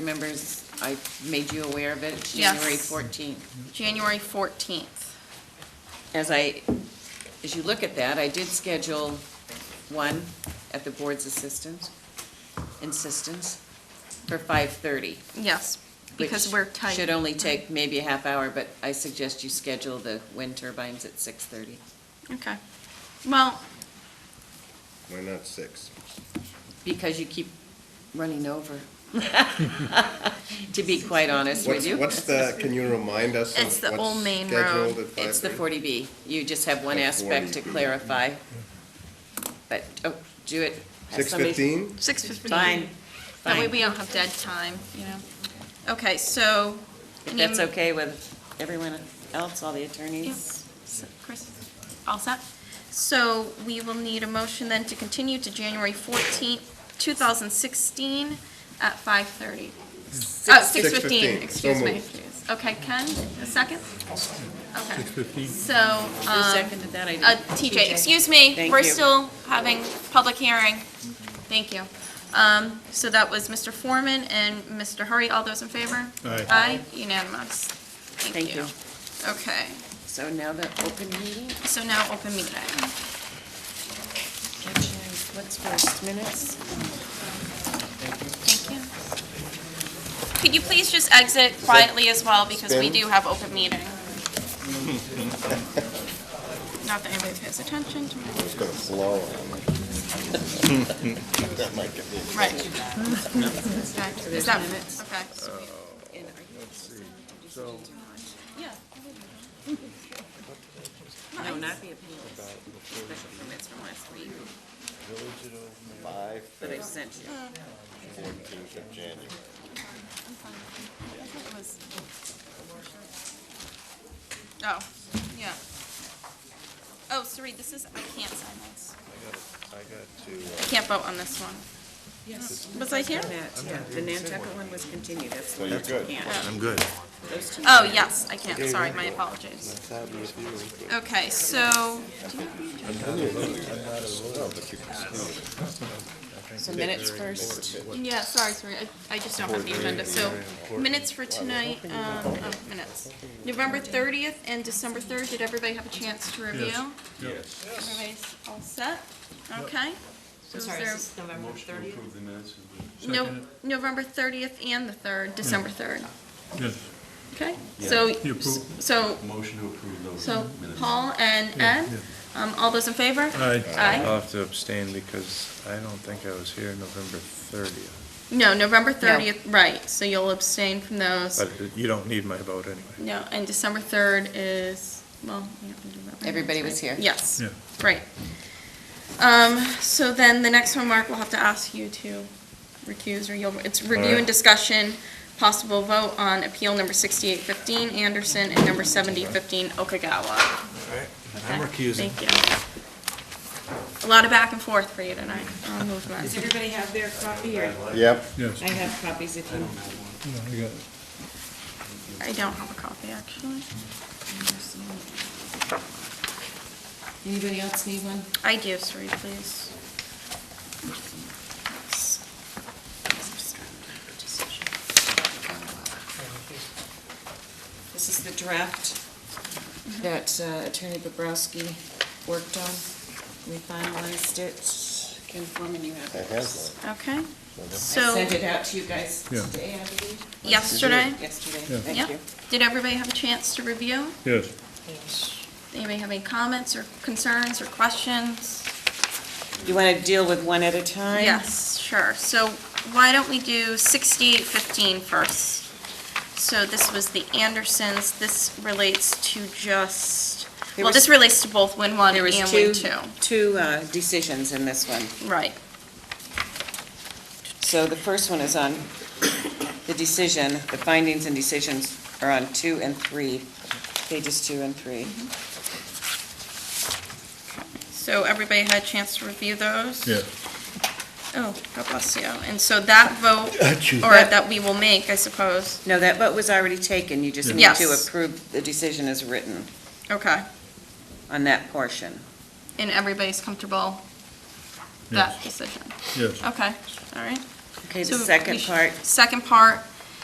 members, I made you aware of it, It's Yes. January 14th. January 14th. As I, as you look at that, I did schedule one at the board's assistance, insistence, for 5:30. Yes, because which we're tight. Should only take maybe a half hour, but I suggest you schedule the wind turbines at 6:30. Okay. Well, Why not six? Because you keep running over. To be quite honest with What's, you. what's the, can you remind us of It's the what's Old Main scheduled Road. at It's the 5:30? 40B. You just have one The aspect to 40B. clarify. But, oh, do it. Have Six somebody- fifteen? 6:15. Fine, That way fine. we don't have dead time, you know? Okay, so. If that's okay with everyone else, all the attorneys. Yes, So, Chris, all set? So we will need a motion then to continue to January 14th, 2016 at 5:30. Oh, 6:15, 6:15, excuse so me. moved. Okay, Ken, a second? Okay. 6:15. So, Who um, seconded that? I Uh, didn't- TJ, excuse me, Thank we're you. still having public hearing. Thank you. Um, so that was Mr. Foreman and Mr. Hurry, all those in favor? Aye. Aye, unanimous. Thank Thank you. you. Okay, So now the open meeting, so now open meeting. Actually, what's first, minutes? Thank you. Could you please just exit quietly as well, because we spin? do have open meeting? Not that anybody pays attention to my... It's gonna blow on me. That might get me. Right. Okay, Is that minutes? Oh. Okay. Yeah. No, not the opinions. Special permits from last week Five that I sent you. fourteenth of January. Oh, yeah. Oh, sorry, this is, I can't sign this. I got uh, to, I can't vote on this one. Yes. Was I here? That, yeah, the Nantucket one was continued, that's. so you're good. Yeah. I'm good. Those two. Oh, yes, I can, sorry, my apologies. Okay, so, So minutes first. yeah, sorry, sorry, I- I just don't have the agenda, so minutes for tonight, um, oh, minutes. November thirtieth and December third, did everybody have a chance to review? Yes. Everybody's all set? Okay? So is Sorry, there- is this November 30th? No, November 30th and the 3rd, December 3rd. Yes. Okay? So, You approve? so, Motion to approve those so minutes. Paul and Yeah, Ed, um, all those in favor? Aye. Aye? I'll have to abstain because I don't think I was here November 30th. No, November 30th, right, so you'll abstain from those. But you don't need my vote anyway. No, and December 3rd is, well, we have to do that. Everybody was here. Yes, Yeah. right. Um, so then the next one, Mark, we'll have to ask you to recuse or you'll, it's review and right. discussion, possible vote on appeal number sixty-eight fifteen Anderson and number seventy fifteen Okagawa. I'm recusing. Thank you. A lot of back and forth for you tonight on Does movement. everybody have their copy or? Yep. Yes. I have copies if you. Yeah, I got it. I don't have a copy, actually. Anybody else need one? I do, sorry, please. This is the draft that uh, Attorney Bobrowski worked on. We finalized it. Ken Forman, you have I it. have Okay, I so sent it out to you guys Yeah. today, I believe, yesterday, yesterday. Yeah. yeah, Thank you. did everybody have a chance to review? Yes. Anybody have any comments or concerns or questions? You want to deal with one at a time? Yes, sure. So why don't we do 6815 first? So this was the Andersons. This relates to just, There well, was- this relates to both Win 1 There and was Win 2. two, two uh, decisions in this one. Right. So the first one is on the decision, the findings and decisions are on two and three, pages two and three. So everybody had a chance to review those? Yeah. Oh, God bless you. And so that vote, or that we will make, I suppose. No, that vote was already taken, you just need Yes. to approve the decision as written Okay. on that portion. And everybody's comfortable that decision? Yes. Okay, all right. Okay, the So we second sh- part, Second part